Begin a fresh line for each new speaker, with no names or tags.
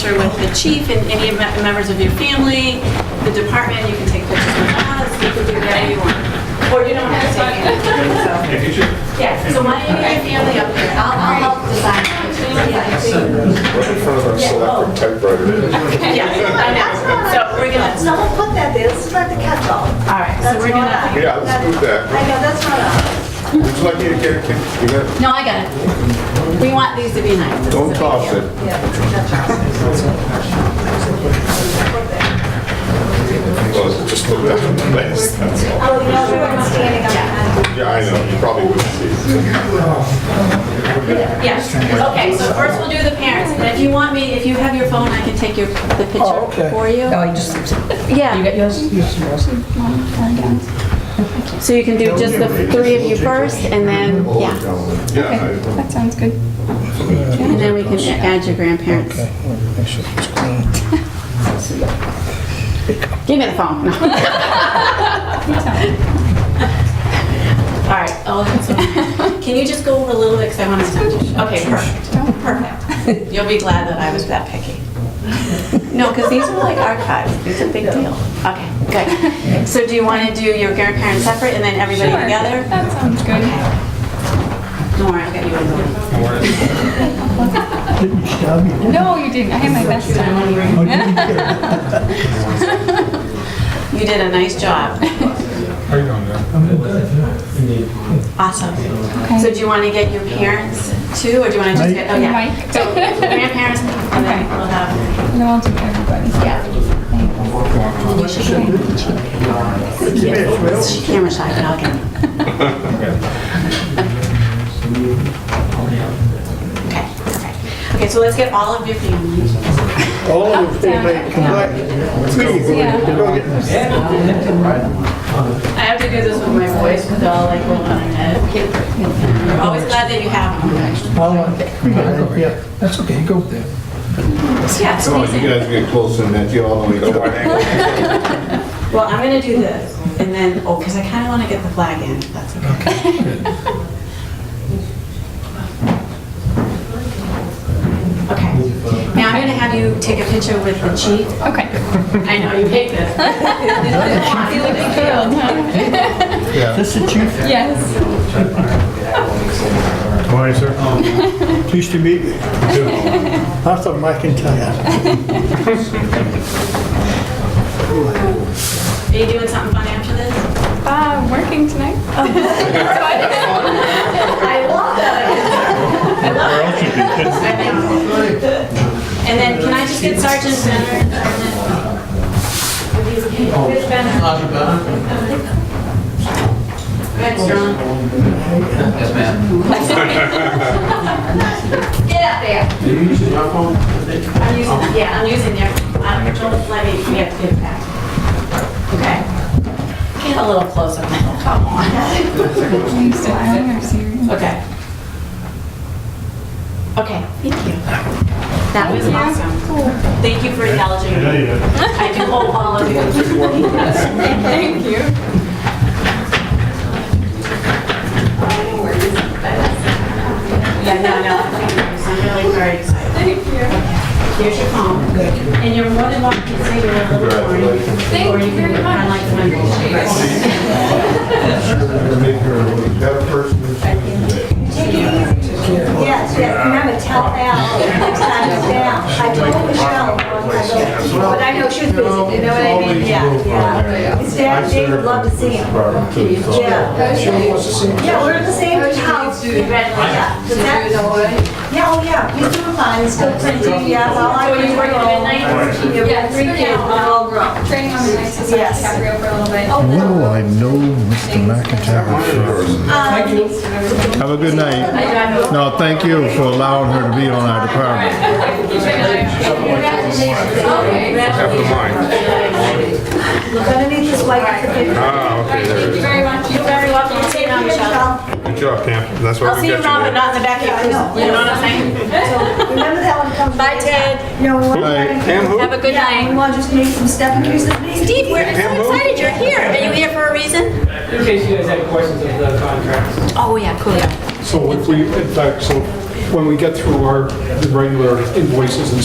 the chief and any me- members of your family, the department, you can take pictures with us, you can do whatever you want. Or you don't have to take anything, so. Yeah, so my immediate family up there, I'll, I'll help design. Yeah,
Right in front of our
Oh.
selectric typewriter.
Yeah, I know, so we're gonna,
No, don't put that there, this is not the
all
catch-all.
right, so
That's
we're
not
gonna,
us.
Yeah, let's do
I
that.
know, that's not us.
Would you like me to get, can- you got-
no, I got it. We want these to be nice. It's a
don't
big
toss
deal.
it. Well, just look down the list, that's all.
Oh, you know, everyone's standing up.
Yeah, I know, you probably wouldn't see it.
Yes, okay, so first we'll do the parents, and if you want me, if you have your phone, I can take your, the
Oh,
picture
okay.
for you.
No, you just, you
Yeah,
got yours? Yes.
so you can do just the three of you first, and then, yeah,
Yeah,
That sounds good.
and then we can add your grandparents.
Okay, let me make sure it's clean.
Give me the phone. No. All right, I'll- can you just go over a little bit, because I want to talk to you? Okay, perfect, perfect. You'll be glad that I was that picky. No, because these are like archives, these are big deal. Okay, good. So do you want to do your grandparents separate and then everybody
Sure.
together?
That sounds good.
Don't worry, I'll get you in the
No, you didn't. I had my best
Oh,
time.
Oh,
You did a nice job.
How you doing, man?
Awesome. So do you want to get your parents too, or do you want to just get, oh yeah.
Mike.
So grandparents, and then we'll have,
No, I'll do everybody.
yeah. She's camera shy, but I'll get it. Okay, perfect. Okay, so let's get all of your family.
All of them, they come back. Please,
Yeah.
go get
I have to do this with my voice because I'll like roll on my head. We're always glad that you have them.
I'll, uh, we got it. Yeah, that's okay, go there.
Yeah, it's
Come on, you
amazing.
guys get close and that you all only go one angle.
Well, I'm gonna do this and then, oh, because I kind of want to get the flag in, if that's okay. Okay. Now I'm gonna have you take a picture with the chief.
Okay.
I know, you hate this.
This is chief.
Yes.
Morning, sir.
Pleased to meet you. Arthur McIntyre.
Are you doing something fun after this?
Uh, working tonight.
I love that.
Where else you been?
And then can I just get Sergeant Benner? Here's Benner. Thanks, John.
Yes, ma'am.
Get out there. Are you using my phone? I'm using, yeah, I'm using your, I'm, don't let me get it back. Okay. Get a little closer, Michael, come on.
I'm still on or serious.
Okay. Okay, thank you. That was awesome. Thank you for acknowledging
Yeah,
me.
yeah.
I do owe all of you. Thank you. Yeah, no, no, thank you. I'm really very excited. Thank you. Here's your phone. And you're more than welcome to say you're a little boring.
Thank
Or
you
can
very
kind of
much.
like the one that you-
Make her a better person than she is today.
Take it easy. Yes, yes, remember, tell Al, next time it's down. I told Michelle, one time ago, but I know she was busy, you know what I mean? Yeah, yeah. It's down, Dave would love to see him. Yeah. Yeah, we're in the same house. Yeah, does that- Yeah, oh, yeah, he's doing fine, he's still printing, yeah, well, I.
So are you working at night?
Yeah, we have three
Yeah.
kids, we're all grown.
Training on the night, so I
Yes.
have to for a little bit.
Oh,
When
no.
will I know Mr. McIntyre from?
Um,
Have a good night. No, thank you for allowing her to be on our department.
Oh,
Half of mine.
Look underneath this white picket fence.
Ah, okay, there it is.
Very much. You're very welcome to sit down, Michelle.
Good job, Camp. That's
I'll
what we
see you
got
around, but
you
not in the back here. You know what I'm saying?
Remember that one comes.
Bye, Ted.
You know, we
there.
want-
Hey, Cam, who?
Have a good
yeah, we
night.
want to just make some step in case it's needed.
Steve, we're so excited you're here. Are you here for a reason?
In case you guys have questions of the contracts.
Oh, yeah, cool.
So if we, in fact, so when we get through our regular invoices and